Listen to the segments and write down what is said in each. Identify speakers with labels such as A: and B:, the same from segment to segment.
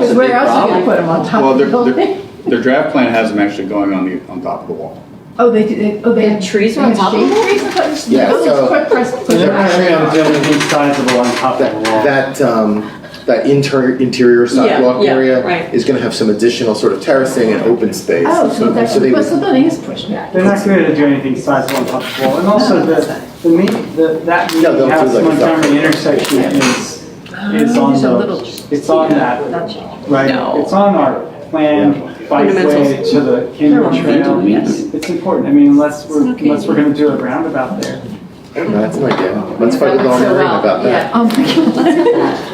A: that's a
B: Because
A: big
B: where else are you gonna
A: problem.
B: put them on top
C: Well,
B: of the
C: their, their,
B: building?
C: their draft plan has them actually going on the, on top of the wall.
B: Oh, they, do- they, oh, they.
A: They have trees
B: they
A: on
B: have
A: top of
B: shade
A: them?
B: Trees on top of the
D: Yeah,
B: building.
D: so-
B: Quick press-
E: So they're actually on building insizable on top of the wall.
D: That, that, um, that inter, interior sidewalk
A: yeah,
D: area
A: right.
D: is gonna have some additional sort of terracing and open space.
B: Oh, so that's,
D: So they
B: because the
D: would,
B: building is pushed back.
E: They're not going to do anything sizable on top of the wall, and also the, the me, the, that
D: No, they'll do
E: meeting house
D: like a
E: Montgomery
D: separate-
E: intersection is,
A: Oh,
E: is on
B: Just a little-
E: the, it's on that, right?
A: No.
E: It's on our planned bikeway
A: Ornamentals.
E: to the Cambridge
A: ornamental,
E: Trail.
A: yes.
E: It's important, I mean, unless we're,
A: It's okay.
E: unless we're gonna do a roundabout there.
D: that's an idea. Let's fight with
A: That
D: Long
A: works so
D: Marine
A: well,
D: about that.
B: Oh, my God.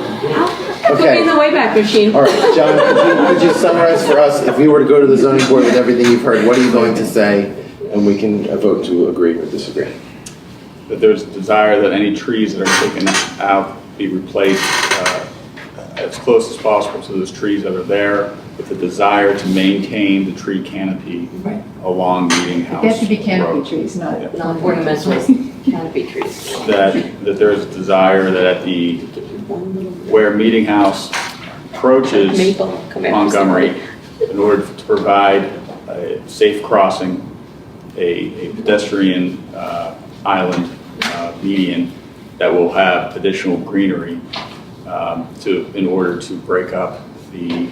A: Put me in the
D: Okay,
A: Wayback Machine.
D: all right, John, could you- could you summarize for us, if we were to go to the zoning board with everything you've heard, what are you going to say? And we can uh, vote to agree or disagree.
C: That there's desire that any trees that are taken out be replaced uh, as close as possible to those trees that are there, with the desire to maintain the tree canopy
B: Right.
C: along Meeting House
B: They have to be
C: Road.
B: canopy trees, not.
C: Yeah.
B: not
A: Non-ornamental canopy trees.
C: that, that there's a desire that at the, where Meeting House approaches
A: Maple, come after
C: Montgomery,
A: somebody.
C: in order to provide a safe crossing, a a pedestrian uh, island uh, median that will have additional greenery um, to, in order to break up the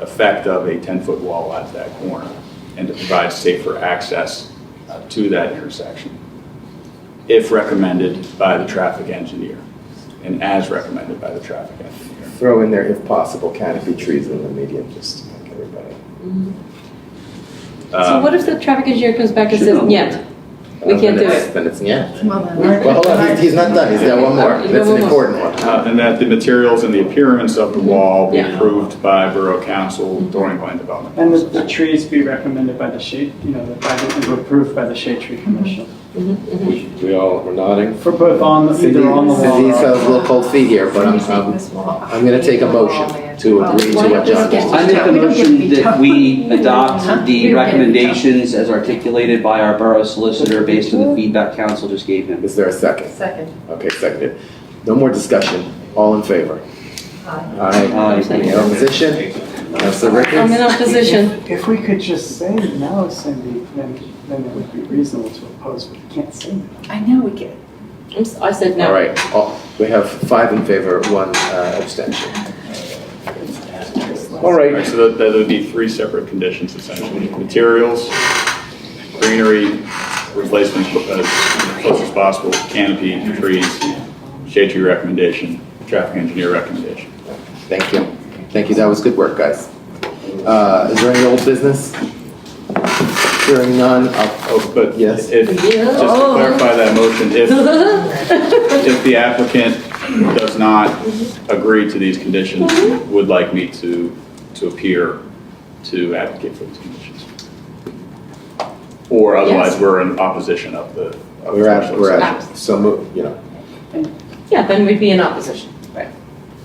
C: effect of a 10-foot wall at that corner and to provide safer access uh, to that intersection if recommended by the traffic engineer, and as recommended by the traffic engineer.
D: Throw in there, if possible, canopy trees in the median, just to make everybody.
A: So
C: Um,
A: what if the traffic engineer comes back and says, "Yet, We
D: Uh,
A: can't
D: then
A: do
D: it's-
A: it.
D: Then it's, yeah.
B: Well, then-
E: Well,
D: Well, hold on, he's, he's not done, he's got one more,
A: Okay,
D: that's an
A: one more.
D: important one.
C: uh, And that the materials and the appearance of the wall be
A: Yeah.
C: approved by Borough Council during plan development.
E: And the, the trees be recommended by the shade, you know, by the, approved by the shade tree commission.
D: We all were nodding.
E: For both on, the
D: Cindy,
E: either on the wall
D: Cindy
E: or.
D: feels a little cold feet here, but I'm,
B: Somebody's taking
D: I'm,
B: this wall.
D: I'm gonna take a
B: Oh,
D: motion to agree to what John just
F: I make a
B: We don't get to
F: motion
B: be
F: that
B: tough.
F: we
B: Huh?
F: adopt
B: We don't get to be
F: the
B: tough.
F: recommendations as articulated by our borough solicitor based on the feedback council just gave him.
D: Is there a second?
B: Second.
D: Okay, seconded. No more discussion. All in favor?
B: Aye.
D: Aye. Any
F: Uh,
D: opposition? Counselor
A: I'm in
D: Ricketts?
A: opposition.
E: If we could just say no, Cindy, then, then it would be reasonable to oppose, but we can't say no.
B: I know we get.
A: I'm s- I said
D: All
A: no.
D: right, all- we have five in favor, one uh, abstention. All
C: All right,
D: right,
C: so that that would be three separate conditions essentially. Materials, greenery, replacement as close as possible, canopy, trees, shade tree recommendation, traffic engineer recommendation.
D: thank you. Thank you, that was good work, guys. Uh, Is there any old business? Hearing none, uh, I'll-
C: Oh, but
D: Yes.
C: if, just to
A: Yeah.
C: clarify that motion, if, if the applicant does not agree to these conditions, would like me to, to appear to advocate for these conditions. Or otherwise,
A: Yes.
C: we're in opposition of the. of
D: we're
C: the
D: at,
C: motion.
D: we're at, so, mo- you know,
A: Yeah, then we'd be in opposition.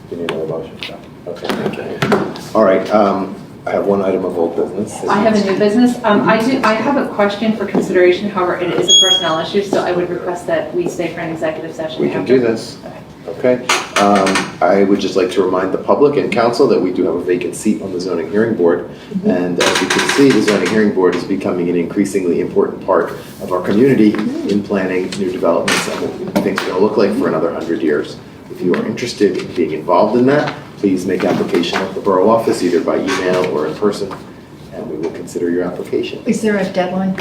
D: you need another motion. Okay, thank you. All right, um, I have one item of old business.
G: I have a new business. Um, I do, I have a question for consideration, however, it is a personnel issue, so I would request that we stay for an executive session.
D: We can do
G: after.
D: this. Okay. Um, I would just like to remind the public and council that we do have a vacant seat on the zoning hearing board. And as you can see, the zoning hearing board is becoming an increasingly important part of our community in planning new developments and what things are going to look like for another hundred years. If you are interested in being involved in that, please make application at the borough office, either by email or in person, and we will consider your application.
B: Is there a deadline?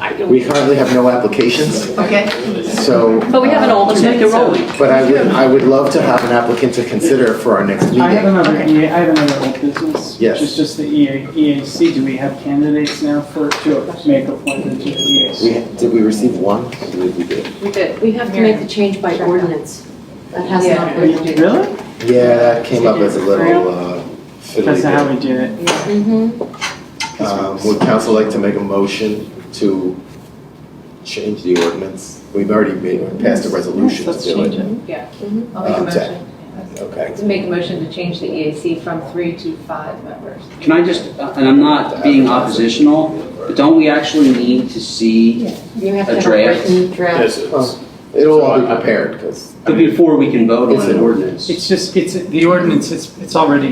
A: I don't-
D: We currently have no applications,
B: Okay.
D: so.
A: But we have an
D: uh,
A: alternate, so.
D: But I would, I would love to have an applicant to consider for our next
E: I have
D: meeting.
E: another
B: Okay.
E: EA, I have another old business,
D: Yes.
E: which is just the E EA, EAC. Do we have candidates now for, to make appointment to the E
D: We,
E: EAC?
D: did we receive one? I believe we did.
G: We did.
A: We have to make the change by ordinance. That has not
G: Yeah.
A: been.
E: Really?
D: Yeah, that came up as a little uh,
E: That's not how
D: fiddly.
E: we did it.
A: Mm-hmm.
D: bit. Um, Would council like to make a motion to change the ordinance? We've already made, passed a resolution to
E: Let's
D: do
E: change
D: it.
E: it.
G: Yeah,
B: I'll make a
D: Um,
B: motion.
D: Okay.
G: to make a motion to change the EAC from three to five members.
F: Can I just, and I'm not being oppositional, but don't we actually need to see
A: You have to
F: A
A: have a
F: draft?
A: written draft.
C: Yes, it's-
D: It'll all be
C: So I-
D: prepared, because
F: But before we can vote on
D: It's
F: an
D: an-
F: ordinance.
E: It's just, it's, the ordinance, it's, it's already